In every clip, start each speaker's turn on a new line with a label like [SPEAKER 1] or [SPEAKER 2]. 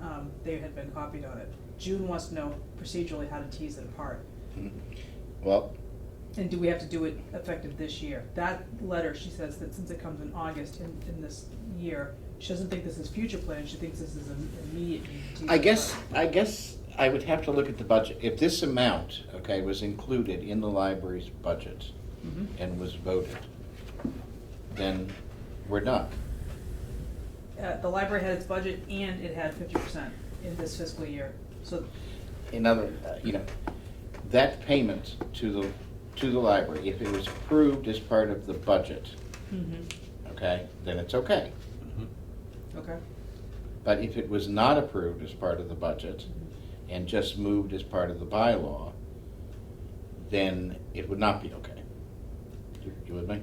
[SPEAKER 1] um, they had been copied on it. June wants to know procedurally how to tease it apart.
[SPEAKER 2] Well,
[SPEAKER 1] And do we have to do it effective this year? That letter, she says that since it comes in August in, in this year, she doesn't think this is future planning, she thinks this is im- immediate. need to tease
[SPEAKER 2] I
[SPEAKER 1] it
[SPEAKER 2] guess,
[SPEAKER 1] apart.
[SPEAKER 2] I guess I would have to look at the budget. If this amount, okay, was included in the library's budget
[SPEAKER 1] Mhm.
[SPEAKER 2] and was voted, then we're done.
[SPEAKER 1] Uh, the library had its budget and it had fifty percent in this fiscal year, so,
[SPEAKER 2] In other, uh, you know, that payment to the, to the library, if it was approved as part of the budget,
[SPEAKER 1] mhm,
[SPEAKER 2] okay, then it's okay.
[SPEAKER 1] okay,
[SPEAKER 2] But if it was not approved as part of the budget and just moved as part of the bylaw, then it would not be okay. You- You with me?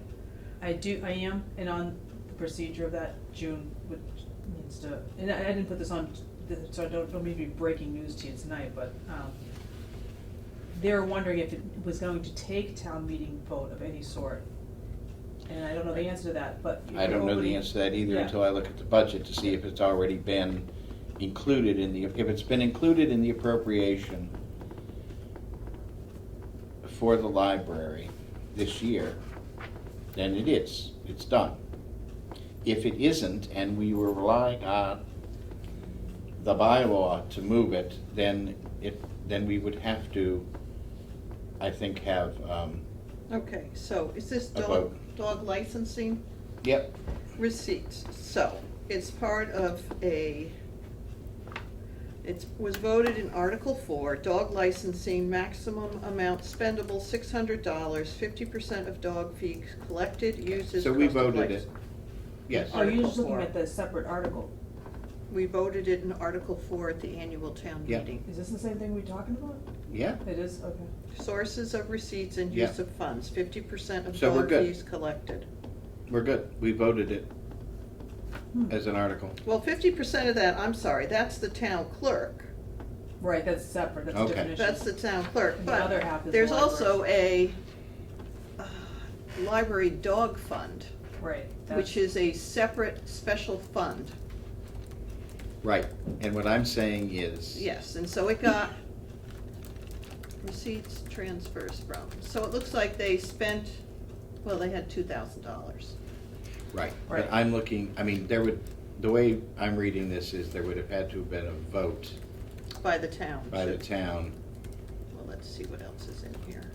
[SPEAKER 1] I do, I am, and on the procedure of that, June would, needs to, and I, I didn't put this on, th- so I don't, don't mean to be breaking news to you tonight, but, um, they're wondering if it was going to take town meeting vote of any sort, and I don't know the answer to that, but.
[SPEAKER 2] I don't know the answer to that either
[SPEAKER 1] Yeah.
[SPEAKER 2] until I look at the budget to see if it's already been included in the, if it's been included in the appropriation for the library this year, then it is, it's done. If it isn't, and we were relying on the bylaw to move it, then it, then we would have to, I think, have, um,
[SPEAKER 3] Okay, so is this
[SPEAKER 2] A
[SPEAKER 3] dog,
[SPEAKER 2] vote.
[SPEAKER 3] dog licensing
[SPEAKER 2] yep,
[SPEAKER 3] receipts? So it's part of a, it was voted in Article Four, dog licensing, maximum amount spendable, six hundred dollars, fifty percent of dog fees collected, uses,
[SPEAKER 2] so we
[SPEAKER 3] cost of
[SPEAKER 2] voted it.
[SPEAKER 3] license.
[SPEAKER 2] Yes.
[SPEAKER 1] Are you just
[SPEAKER 3] Article
[SPEAKER 1] looking
[SPEAKER 3] four.
[SPEAKER 1] at the separate article?
[SPEAKER 3] We voted it in Article Four at the annual town
[SPEAKER 2] Yeah.
[SPEAKER 3] meeting.
[SPEAKER 1] Is this the same thing we're talking about?
[SPEAKER 2] Yeah,
[SPEAKER 1] It is, okay.
[SPEAKER 3] Sources of receipts and
[SPEAKER 2] Yeah.
[SPEAKER 3] use of funds, fifty percent of
[SPEAKER 2] So we're
[SPEAKER 3] dog
[SPEAKER 2] good.
[SPEAKER 3] fees collected.
[SPEAKER 2] we're good. We voted it
[SPEAKER 1] Hmm.
[SPEAKER 2] as an article.
[SPEAKER 3] Well, fifty percent of that, I'm sorry, that's the town clerk.
[SPEAKER 1] Right, that's separate, that's a
[SPEAKER 2] Okay.
[SPEAKER 1] different issue.
[SPEAKER 3] That's the town clerk,
[SPEAKER 1] And the other
[SPEAKER 3] but
[SPEAKER 1] half is
[SPEAKER 3] there's
[SPEAKER 1] the
[SPEAKER 3] also a uh, library dog fund,
[SPEAKER 1] Right.
[SPEAKER 3] which is a separate special fund.
[SPEAKER 2] Right, and what I'm saying is.
[SPEAKER 3] Yes, and so it got receipts transfers from, so it looks like they spent, well, they had two thousand dollars.
[SPEAKER 2] Right,
[SPEAKER 1] Right.
[SPEAKER 2] but I'm looking, I mean, there would, the way I'm reading this is there would have had to have been a vote
[SPEAKER 3] By the town.
[SPEAKER 2] by the
[SPEAKER 3] to-
[SPEAKER 2] town.
[SPEAKER 3] Well, let's see what else is in here.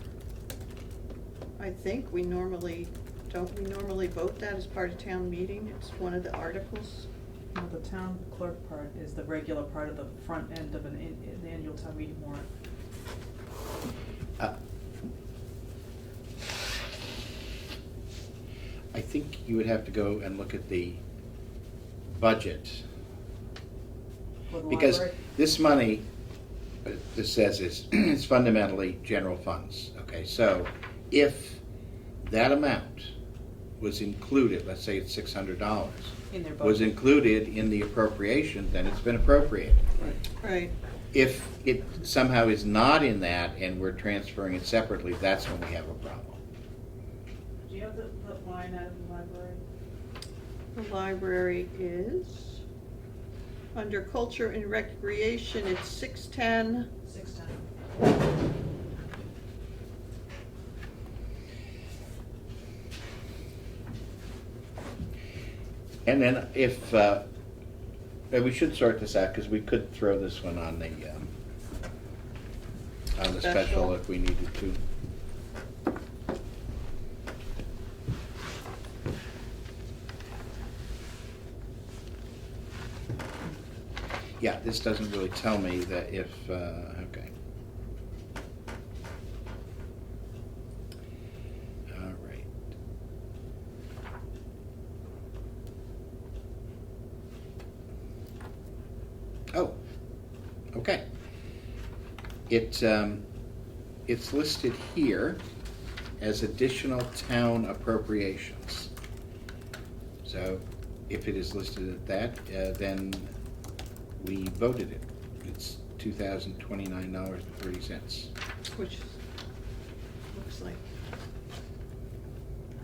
[SPEAKER 3] I think we normally, don't we normally vote that as part of town meeting? It's one of the articles.
[SPEAKER 1] Now, the town clerk part is the regular part of the front end of an, an an annual town meeting warrant.
[SPEAKER 2] Uh, I think you would have to go and look at the budget,
[SPEAKER 1] for the
[SPEAKER 2] because
[SPEAKER 1] library.
[SPEAKER 2] this money, uh, this says is, it's fundamentally general funds, okay? So if that amount was included, let's say it's six hundred dollars,
[SPEAKER 1] In their
[SPEAKER 2] was
[SPEAKER 1] budget.
[SPEAKER 2] included in the appropriation, then it's been appropriated.
[SPEAKER 3] Right.
[SPEAKER 2] If it somehow is not in that and we're transferring it separately, that's when we have a problem.
[SPEAKER 1] Do you have the, the line out of the library?
[SPEAKER 3] The library is, under culture and recreation, it's six-ten,
[SPEAKER 1] Six ten.
[SPEAKER 2] And then if, uh, and we should sort this out, because we could throw this one on the, um, on the special
[SPEAKER 3] Special.
[SPEAKER 2] if we needed to. Yeah, this doesn't really tell me that if, uh, okay. All right. Oh, okay. It, um, it's listed here as additional town appropriations. So if it is listed at that, uh, then we voted it. It's two thousand twenty-nine dollars and thirty cents.
[SPEAKER 3] which looks like,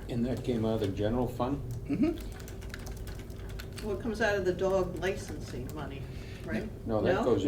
[SPEAKER 4] And that came out of the general fund?
[SPEAKER 2] Mm-hmm.
[SPEAKER 3] well, it comes out of the dog licensing money.
[SPEAKER 5] right?
[SPEAKER 3] No, that goes